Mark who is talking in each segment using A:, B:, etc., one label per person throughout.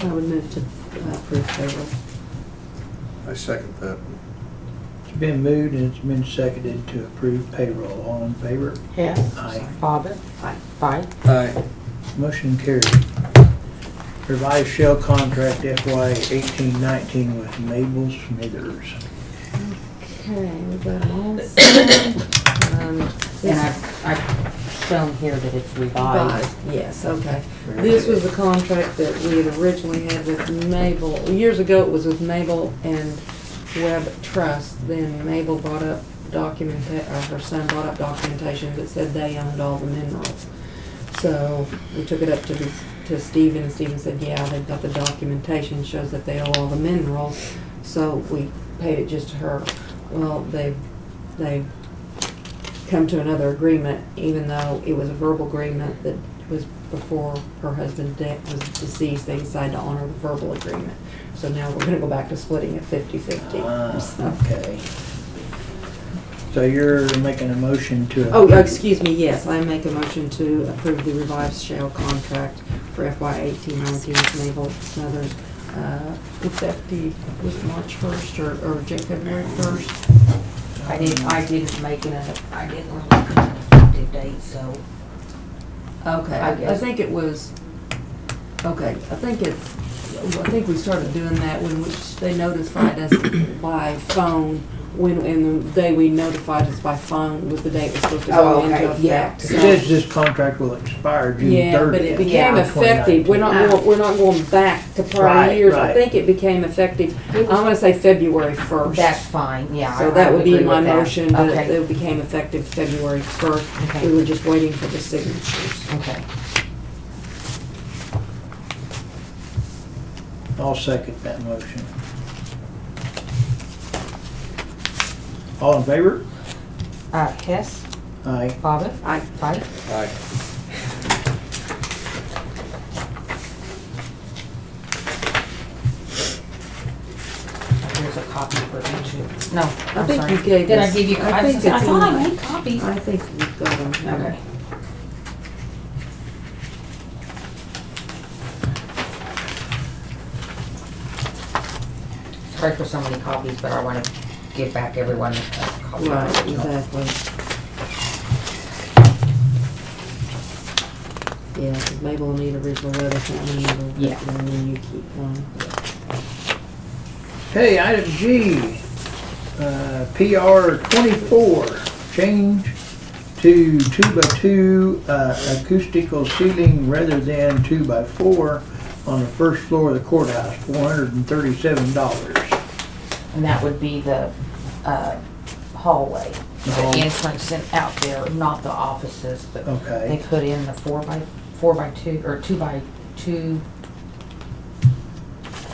A: I would move to uh, approve payroll.
B: I second that.
C: It's been moved and it's been seconded to approve payroll. All in favor?
D: Hess.
C: Aye.
D: Bobbit.
A: Aye.
D: Bye.
B: Aye.
C: Motion carried. Revised shell contract FY eighteen nineteen with Mabel Smithers.
A: Okay, we got them all signed. Um,
D: And
A: this-
D: I've, I've shown here that it's revised.
A: Revised, Yes, okay. This was the contract that we had originally had with Mabel. Years ago, it was with Mabel and Web Trust. Then Mabel bought up document, or her son bought up documentation that said they owned all the minerals. So we took it up to, the- to Stephen, and Stephen said, yeah, they've got the documentation, shows that they owe all the minerals. So we paid it just to her. Well, they've, they've come to another agreement, even though it was a verbal agreement that was before her husband de- was deceased, they decided to honor the verbal agreement. So now we're gonna go back to splitting it fifty-fifty.
C: Ah,
A: So-
C: Okay. So you're making a motion to.
A: Oh, excuse me, yes, I make a motion to approve the revised shale contract for FY eighteen nineteen with Naval Smothers, uh, effective, was it March first or, or Jan- February first?
D: I didn't, I didn't make it, a- I didn't look at an effective date, so.
A: Okay,
D: I
A: I, I
D: guess.
A: think it was, okay, I think it, I think we started doing that when we, they notified us by phone, when, and the day we notified us by phone was the day it was supposed to go
D: Oh, okay,
A: into
D: yeah.
A: effect.
C: It
A: so-
C: says this contract will expire June
A: Yeah, but
C: thirtieth.
A: it became
D: Yeah.
A: effective, we're not, going- we're not going back to prior
C: Right,
A: years, I
C: right.
A: think it became effective, I
D: It was-
A: wanna say February first.
D: That's fine, yeah. I-
A: So
D: I
A: that would be
D: agree
A: my
D: with that.
A: motion, that
D: Okay,
A: it became effective February first,
D: Okay.
A: we were just waiting for the signatures.
D: okay.
C: I'll second that motion. All in favor?
D: Uh, Hess,
C: Aye.
D: Bobbit,
A: I,
D: bye.
B: Aye.
D: There's a copy for each of, no,
A: I
D: I'm
A: think
D: sorry.
A: you gave
D: Did I
A: us-
D: give you,
A: I
D: I was
A: think
D: just- I
A: it's
D: thought I
A: in-
D: made copies.
A: I think we've got them.
D: Okay. Sorry for so many copies, but I want to give back everyone a copy. of the
A: Right,
D: original.
A: exactly. Yeah, 'cause Mabel will need original letter, and then you'll,
D: Yeah.
A: and then you keep one.
C: Okay, item G, uh, PR twenty-four, change to two-by-two uh, acoustical ceiling rather than two-by-four on the first floor of the courthouse, four hundred and thirty-seven dollars.
D: And that would be the uh, hallway,
C: hall-
D: the entrance and out there, not the offices, but
C: Okay.
D: they put in the four by, four by two, or two by two.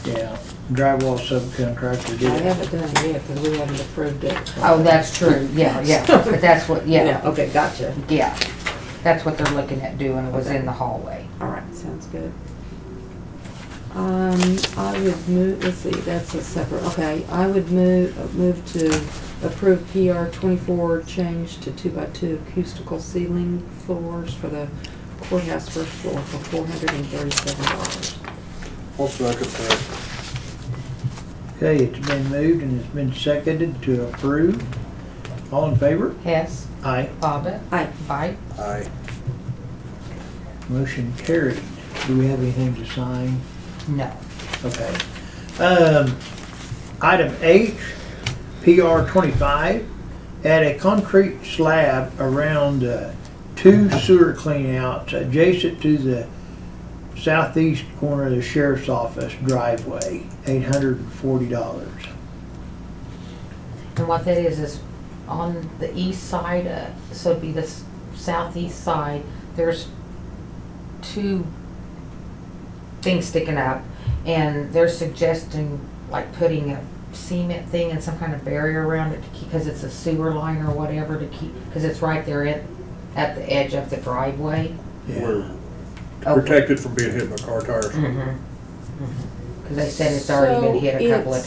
C: Yeah, drywall subcontractor
A: I
C: did it.
A: haven't done it yet, 'cause we haven't approved it.
D: Oh, that's true, yeah, yeah, but that's what, yeah,
A: Okay, gotcha.
D: yeah. That's what they're looking at doing, was in the hallway.
A: All right, sounds good. Um, I would move, let's see, that's a separate, okay, I would move, uh, move to approve PR twenty-four change to two-by-two acoustical ceiling floors for the courthouse first floor for four hundred and thirty-seven dollars.
B: I'll second that.
C: Okay, it's been moved and it's been seconded to approve. All in favor?
D: Hess,
C: Aye.
D: Bobbit,
A: Aye.
D: Bite,
B: Aye.
C: Motion carried. Do we have anything to sign?
D: no.
C: Okay. Um, item H, PR twenty-five, add a concrete slab around, uh, two sewer cleanouts adjacent to the southeast corner of the sheriff's office driveway, eight hundred and forty dollars.
D: And what that is, is on the east side, uh, so it'd be the s- southeast side, there's two things sticking up, and they're suggesting, like, putting a cement thing and some kind of barrier around it to keep, because it's a sewer line or whatever to keep, because it's right there at, at the edge of the driveway.
C: Yeah,
B: We're protected from being hit by car tires.
D: Mm-hmm. Because they said it's already been
A: So
D: hit a couple of
A: it's-